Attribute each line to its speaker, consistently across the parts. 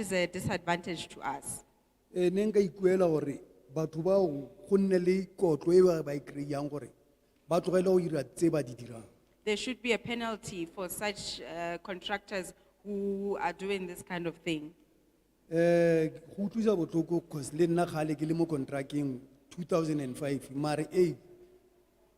Speaker 1: is a disadvantage to us.
Speaker 2: Eh, ne nka ikuela hore, batho bao go nne le kotlo e ba ba e kry-ang gore ba tlogele go ira tse ba di dirang.
Speaker 1: There should be a penalty for such uh, contractors who are doing this kind of thing.
Speaker 2: Eh, go utlwisa botlhoko 'cause le nna kgale ke le mo kontrakeng 2005 mare ei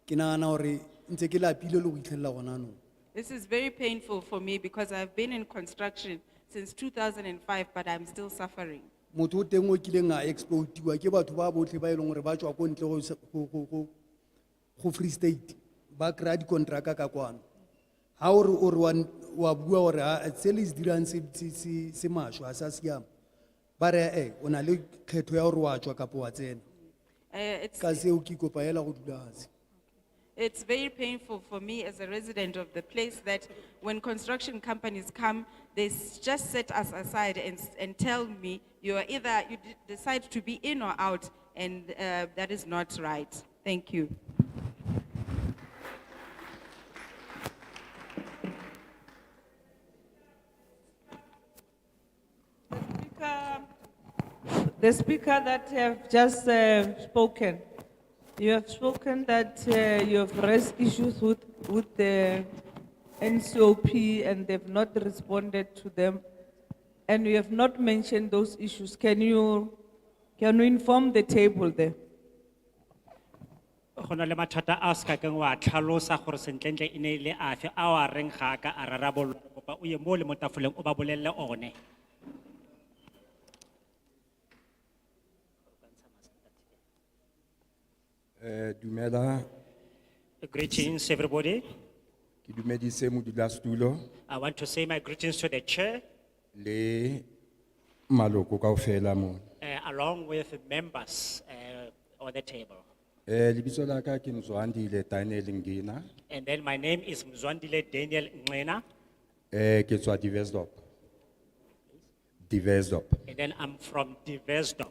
Speaker 2: ke nagana gore ntse ke lapile le go itlhelela gona anong.
Speaker 1: This is very painful for me because I've been in construction since 2005, but I'm still suffering.
Speaker 2: motho o teng o kileng a explodiwa ke batho ba botlhe ba e leng gore ba tswa ko ntle go se- go- go- go- go free state ba kry-a dikonteraka ka kwano ga ore ore wa n- wa bua gore "Ah, se le se dirang se- se- se se maswe ga sa siama ba re e o na le kgetho ya gore wa tswa kapo wa tsena
Speaker 1: Uh, it's,
Speaker 2: ka seo ke ikopa hela go dula fase
Speaker 1: it's very painful for me as a resident of the place that when construction companies come, they s- just set us aside and, s- and tell me you are either, you d- decide to be in or out, and uh, that is not right. Thank you.
Speaker 3: Speaker- The speaker that have just uh, spoken, you have spoken that uh, you have raised issues with, with the NCOP and they've not responded to them. And you have not mentioned those issues. Can you, can you inform the table there?
Speaker 4: Hona le mathata a ska ke wa tlhalosa gore sentlentle e ne le afe a wa reng ga a ka a rarabololwa. Kopa o ye mo le mo tafoleng o ba bolelle one.
Speaker 5: Eh, dumela,
Speaker 4: Greetings everybody.
Speaker 5: ki dumedise modulasetulo
Speaker 4: I want to say my greetings to the chair
Speaker 5: le maloko kaofela mo.
Speaker 4: eh, along with members eh, on the table.
Speaker 5: Eh, lebitso la ka ke Mzwandile Daniel Ngina,
Speaker 4: And then my name is Mzwandile Daniel Ngwena
Speaker 5: eh, ke tswa Diversdorp. Diversdorp.
Speaker 4: and then I'm from Divestop.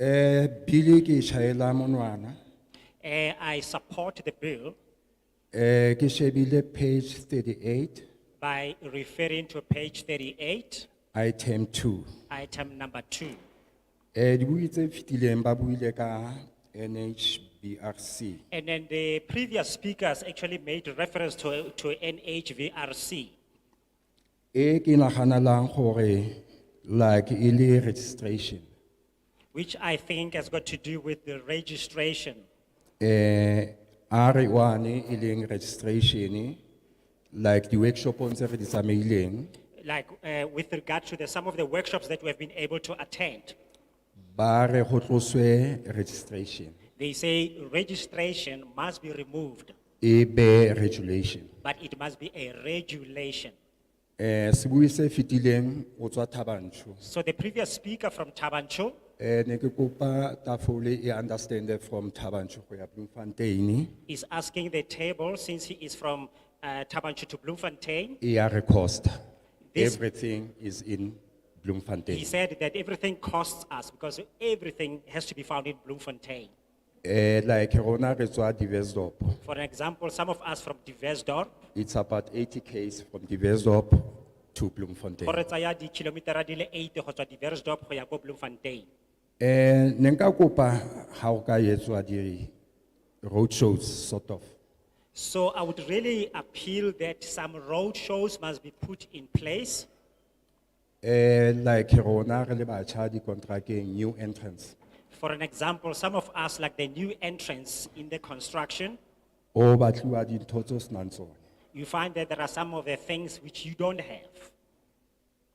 Speaker 5: Eh, bili ke shayela monwana,
Speaker 4: Eh, I support the bill
Speaker 5: eh, ke shebile page thirty-eight,
Speaker 4: by referring to page thirty-eight,
Speaker 5: item two.
Speaker 4: item number two.
Speaker 5: Eh, di buitse fitileng ba buile ka NHBRC.
Speaker 4: And then the previous speakers actually made reference to, to NHVRC.
Speaker 5: Eh, ki nahanalang hori, like ili registration.
Speaker 4: which I think has got to do with the registration.
Speaker 5: eh, are one e leng registration, like the workshop on se re di tsamaileng,
Speaker 4: Like, uh, with regard to the, some of the workshops that we have been able to attend,
Speaker 5: ba re ho tloswe registration,
Speaker 4: they say registration must be removed,
Speaker 5: e be regulation.
Speaker 4: but it must be a regulation.
Speaker 5: Eh, sebui se fitileng, o tswa Thabanchu,
Speaker 4: So the previous speaker from Tabancho,
Speaker 5: eh, ne ke kopa tafole e understand from Thabanchu ho ya Bloemfontein,
Speaker 4: is asking the table, since he is from uh, Tabancho to Bloemfontein,
Speaker 5: e ya re cost.
Speaker 4: This-
Speaker 5: Everything is in
Speaker 4: he
Speaker 5: Bloemfontein.
Speaker 4: said that everything costs us because everything has to be found in Bloemfontein.
Speaker 5: Eh, like rona re tswa Diversdorp,
Speaker 4: For example, some of us from Diversdorp,
Speaker 5: it's about eighty Ks from Diversdorp to Bloemfontein.
Speaker 4: Hore tsaya di kilometer di le eight ho tswa Diversdorp ho ya ko Bloemfontein.
Speaker 5: Eh, ne nka kopa ha o ka etswa di roadshows sort of.
Speaker 4: So I would really appeal that some road shows must be put in place.
Speaker 5: Eh, like rona re le batjha di kontrakeng new entrance.
Speaker 4: For an example, some of us, like the new entrants in the construction,
Speaker 5: O batluwa di ntotso snanzo.
Speaker 4: you find that there are some of the things which you don't have.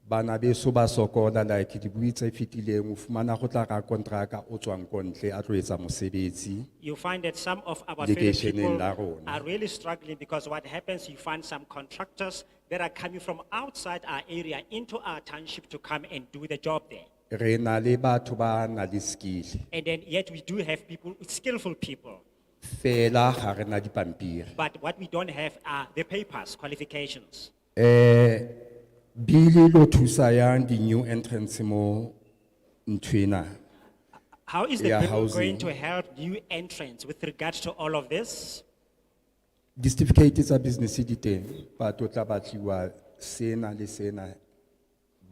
Speaker 5: Banabe so ba sokola like di buitse fitile ngufumana kotla ka kontraka otswang kontle atlo etsa mosebetsi.
Speaker 4: You find that some of our fellow
Speaker 5: Lekeisheneng
Speaker 4: people
Speaker 5: la rona.
Speaker 4: are really struggling because what happens, you find some contractors that are coming from outside our area into our township to come and do the job there.
Speaker 5: Re na le batho ba na le skill.
Speaker 4: And then yet we do have people, skillful people,
Speaker 5: Fela ha re na di pampiri.
Speaker 4: but what we don't have are the papers, qualifications.
Speaker 5: Eh, bili lo thusa yang di new entrance mo ntwena.
Speaker 4: How is the
Speaker 5: Yeah,
Speaker 4: bill going
Speaker 5: housing.
Speaker 4: to help new entrants with regards to all of this?
Speaker 5: Di certificate tsa business di teng, but o tla batliwa sena le sena